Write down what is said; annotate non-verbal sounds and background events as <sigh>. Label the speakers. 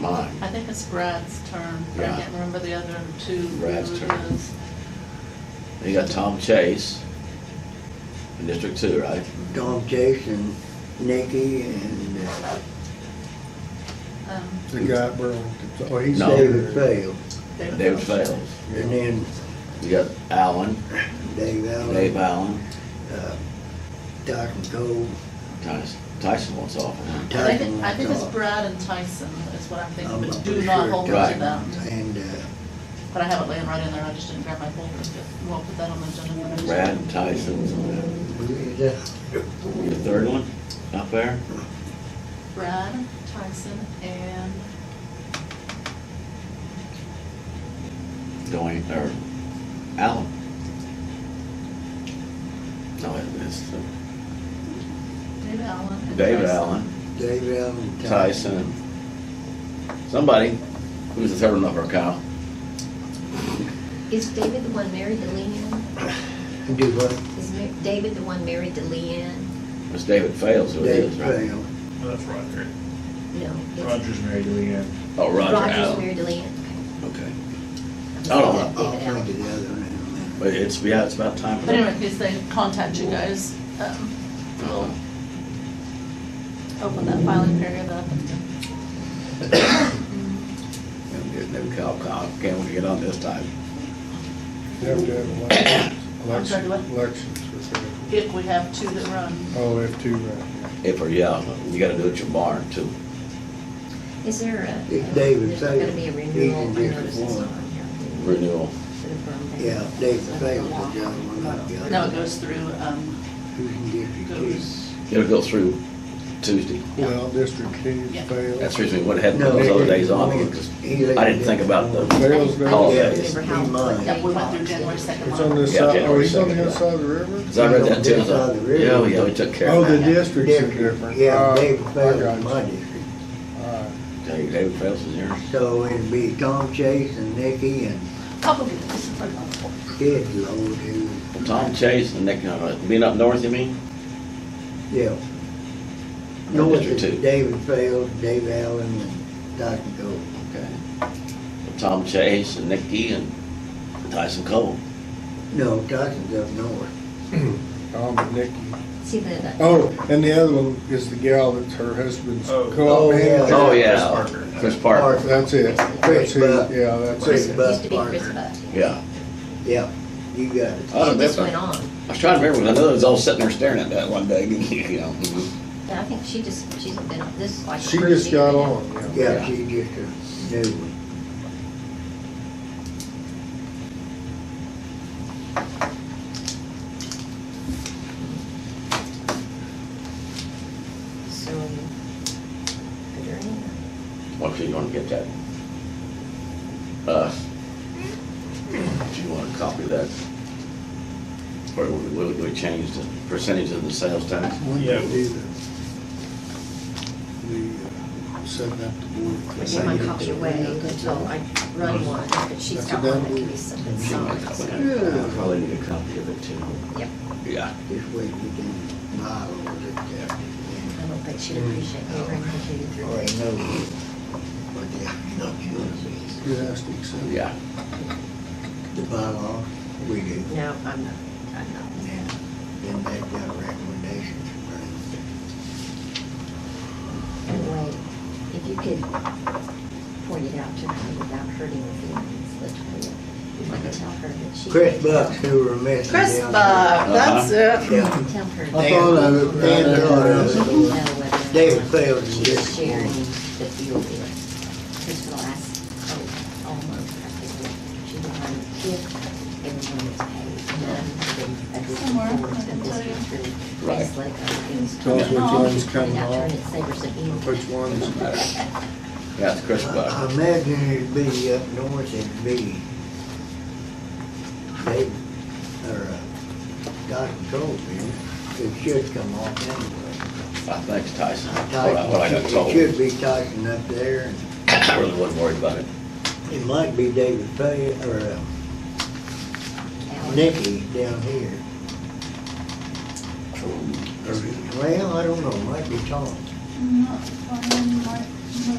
Speaker 1: mine.
Speaker 2: I think it's Brad's term, but I
Speaker 1: Yeah.
Speaker 2: can't remember the other two.
Speaker 1: Brad's
Speaker 2: who it
Speaker 1: term.
Speaker 2: is.
Speaker 1: And You got Tom Chase in District Two, right?
Speaker 3: Tom Chase and Nikki and uh,
Speaker 2: Um,
Speaker 4: The guy at Burlington. Oh, he's
Speaker 1: No.
Speaker 3: David
Speaker 4: there.
Speaker 3: Fail.
Speaker 1: David Fails.
Speaker 3: And then
Speaker 1: You got Allen,
Speaker 3: Dave
Speaker 1: Dave
Speaker 3: Allen,
Speaker 1: Allen,
Speaker 3: uh, Dyson Cole,
Speaker 1: Tyson, Tyson wants off. huh?
Speaker 2: I
Speaker 3: Tyson
Speaker 2: think, I think it's
Speaker 3: Wentz.
Speaker 2: Brad and Tyson is what I'm thinking,
Speaker 3: I'm
Speaker 2: but
Speaker 3: not
Speaker 2: do
Speaker 3: pretty
Speaker 2: not
Speaker 3: sure.
Speaker 2: hold on
Speaker 1: Right.
Speaker 2: to that.
Speaker 3: And uh,
Speaker 2: But I have it laying right in there, I just didn't grab my folder, but we'll put that on the agenda for next
Speaker 1: Brad
Speaker 2: time.
Speaker 1: and Tyson.
Speaker 3: who is that?
Speaker 1: The third one up there?
Speaker 2: Brad, Tyson, and
Speaker 1: Dwayne, or Allen. No, it's uh,
Speaker 2: Dave
Speaker 1: Dave
Speaker 2: Allen. and Tyson.
Speaker 1: Allen,
Speaker 3: Dave Allen.
Speaker 1: Tyson, somebody. Who's the third one up there, Kyle?
Speaker 5: Is David the one married to Leanne?
Speaker 3: Do what?
Speaker 5: Is Ma- David the one married to Leanne?
Speaker 1: It's David Fails who it
Speaker 3: Dave
Speaker 1: is, right?
Speaker 3: Fail.
Speaker 6: That's Roger.
Speaker 5: No. it's-
Speaker 6: Roger's married to Leanne.
Speaker 1: Oh, Roger
Speaker 5: Roger's
Speaker 1: Allen.
Speaker 5: married to Leanne.
Speaker 1: Okay.
Speaker 5: Okay.
Speaker 1: Oh,
Speaker 3: I'll
Speaker 1: no.
Speaker 3: I'll think of the other one in a minute.
Speaker 1: But it's, yeah, it's about time for
Speaker 2: But anyway, in
Speaker 1: that.
Speaker 2: case they contact you guys, um, we'll open that filing period up. <coughs>
Speaker 1: There's no Kyle, Kyle, can we get on this time?
Speaker 4: You have to have
Speaker 2: I'm sorry,
Speaker 4: elections,
Speaker 2: what?
Speaker 4: elections for that.
Speaker 2: If we have two that run,
Speaker 4: Oh, we have two right
Speaker 1: If, or yeah, you gotta do it at your barn too.
Speaker 5: Is there a? uh,
Speaker 3: It's David
Speaker 5: There's not gonna
Speaker 3: Fagan.
Speaker 5: be a
Speaker 3: He's in District
Speaker 5: renewal notice
Speaker 3: One.
Speaker 5: on here
Speaker 1: Renewal.
Speaker 5: for the firm.
Speaker 3: Yeah, David Fail is the other one, not the other.
Speaker 2: no, it goes through, um,
Speaker 3: Who's in District Two?
Speaker 2: goes,
Speaker 1: It'll go through Tuesday.
Speaker 4: now. Well, District two
Speaker 2: Yeah.
Speaker 4: failed.
Speaker 1: That's the reason we went ahead and put those
Speaker 3: No,
Speaker 1: other
Speaker 3: they-
Speaker 1: days on,
Speaker 3: they-
Speaker 1: because
Speaker 3: they-
Speaker 1: I didn't think about
Speaker 5: I
Speaker 1: those.
Speaker 4: Fails,
Speaker 5: didn't- I
Speaker 4: fails.
Speaker 1: Yeah,
Speaker 5: didn't
Speaker 3: it's
Speaker 5: remember how.
Speaker 3: three
Speaker 5: what
Speaker 3: months.
Speaker 5: day
Speaker 2: yeah, we went
Speaker 5: falls.
Speaker 2: through January second.
Speaker 4: It's on this
Speaker 1: Yeah,
Speaker 4: side, oh,
Speaker 1: January
Speaker 4: he's on the
Speaker 1: second,
Speaker 4: other
Speaker 1: yeah.
Speaker 4: side of the river?
Speaker 1: Cause I read that too, I was
Speaker 3: Down
Speaker 1: like,
Speaker 3: the river.
Speaker 1: yeah, yeah, we took care
Speaker 4: Oh,
Speaker 1: of
Speaker 4: the
Speaker 1: that.
Speaker 4: districts are
Speaker 3: District,
Speaker 4: different.
Speaker 3: Yeah,
Speaker 4: Uh,
Speaker 3: David
Speaker 4: I
Speaker 3: Fail
Speaker 4: got
Speaker 3: is my
Speaker 4: you.
Speaker 3: district.
Speaker 4: All right.
Speaker 1: David David Phelps is yours.
Speaker 3: So it'd be Tom Chase and Nikki and
Speaker 2: Probably, this is like, oh,
Speaker 3: Kid Lord who,
Speaker 1: Tom Chase and Nick, uh, being up north, you mean?
Speaker 3: yeah.
Speaker 1: Or
Speaker 3: North
Speaker 1: District
Speaker 3: is
Speaker 1: two?
Speaker 3: David Fail, Dave Allen, and Dr. Gold.
Speaker 1: Okay. Tom Chase and Nicky and Tyson Cole.
Speaker 3: No, Dyson's up north.
Speaker 4: Tom and Nikki.
Speaker 5: See the.
Speaker 4: Oh, and the other one is the gal that's her husband's
Speaker 6: Oh.
Speaker 4: co-op
Speaker 3: Oh, yeah.
Speaker 4: manager.
Speaker 1: Oh,
Speaker 6: Chris
Speaker 1: yeah.
Speaker 6: Parker.
Speaker 1: Chris Parker,
Speaker 3: Parker.
Speaker 4: That's it. That's
Speaker 3: Chris Buck.
Speaker 4: who, yeah, that's
Speaker 3: Chris
Speaker 4: it.
Speaker 3: Buck.
Speaker 5: Used to be Chris
Speaker 3: Parker.
Speaker 5: Buck.
Speaker 1: yeah.
Speaker 3: Yeah, you got it.
Speaker 1: I don't
Speaker 5: It just
Speaker 1: remember.
Speaker 5: went on.
Speaker 1: I was trying to remember, 'cause I know they was all sitting there staring at that one day, <laughs> you know.
Speaker 5: Yeah, I think she just, she's been, on this is like.
Speaker 4: She
Speaker 5: her
Speaker 4: just
Speaker 5: year
Speaker 4: got
Speaker 5: now.
Speaker 4: on, yeah.
Speaker 3: Yeah, she just a new one.
Speaker 5: So, good or anything.
Speaker 1: What if you wanna get that? Uh, do you wanna copy that? Or will, will we change the percentage of the sales tax?
Speaker 4: When
Speaker 6: Yeah.
Speaker 4: did we do that? We uh, set that to board.
Speaker 5: I gave my copy away until I run one, but she's got one that can be sent and signed.
Speaker 1: I Probably need a copy of it too.
Speaker 5: Yep,
Speaker 1: Yeah.
Speaker 3: This way we can buy all of it there.
Speaker 5: I don't think she'd appreciate me bringing it to you through.
Speaker 3: Or I know, but yeah, not yours.
Speaker 4: You asked me, so.
Speaker 1: Yeah.
Speaker 3: The bylaw, we do.
Speaker 5: No, I'm not, I'm not.
Speaker 3: And then they got recommendations from
Speaker 5: And wait, if you could point it out to her without hurting her feelings, Latoya, if I could tell her that she.
Speaker 3: Chris Buck, who were missing.
Speaker 2: Chris
Speaker 3: down
Speaker 2: Buck,
Speaker 1: that's
Speaker 2: uh, that's uh, it.
Speaker 3: there. Yeah.
Speaker 5: Tell her.
Speaker 3: I thought of it,
Speaker 5: that-
Speaker 3: Dan thought of it.
Speaker 5: Know whether or
Speaker 3: David
Speaker 5: not
Speaker 3: failed in
Speaker 5: She's
Speaker 3: this one.
Speaker 5: sharing the field there. Because for the last, oh, almost, I think, she was on the fifth, everyone was paid. None have been a good
Speaker 2: Somewhere, I
Speaker 5: report
Speaker 2: can
Speaker 5: of this
Speaker 2: tell you.
Speaker 5: retreat.
Speaker 1: Right.
Speaker 5: It's like um, other things.
Speaker 4: Tell us which
Speaker 5: She
Speaker 4: one's
Speaker 5: pointed
Speaker 4: coming
Speaker 5: out to her
Speaker 4: off.
Speaker 5: and it savors of evil.
Speaker 4: Which ones?
Speaker 5: <laughs>
Speaker 1: Yeah, it's Chris
Speaker 3: I
Speaker 1: Buck.
Speaker 3: I imagine it'd be up north, it'd be David, or uh, Dr. Colvin, it should come off anyway.
Speaker 1: I think it's Tyson. What I, what I got
Speaker 3: Tyson,
Speaker 1: told.
Speaker 3: it should be Tyson up there, and
Speaker 1: I really wasn't worried about it.
Speaker 3: it might be David Fay, or uh,
Speaker 5: Alan.
Speaker 3: Nikki down here. Or- Well, I don't know, might be Tom.
Speaker 2: Not finding my- my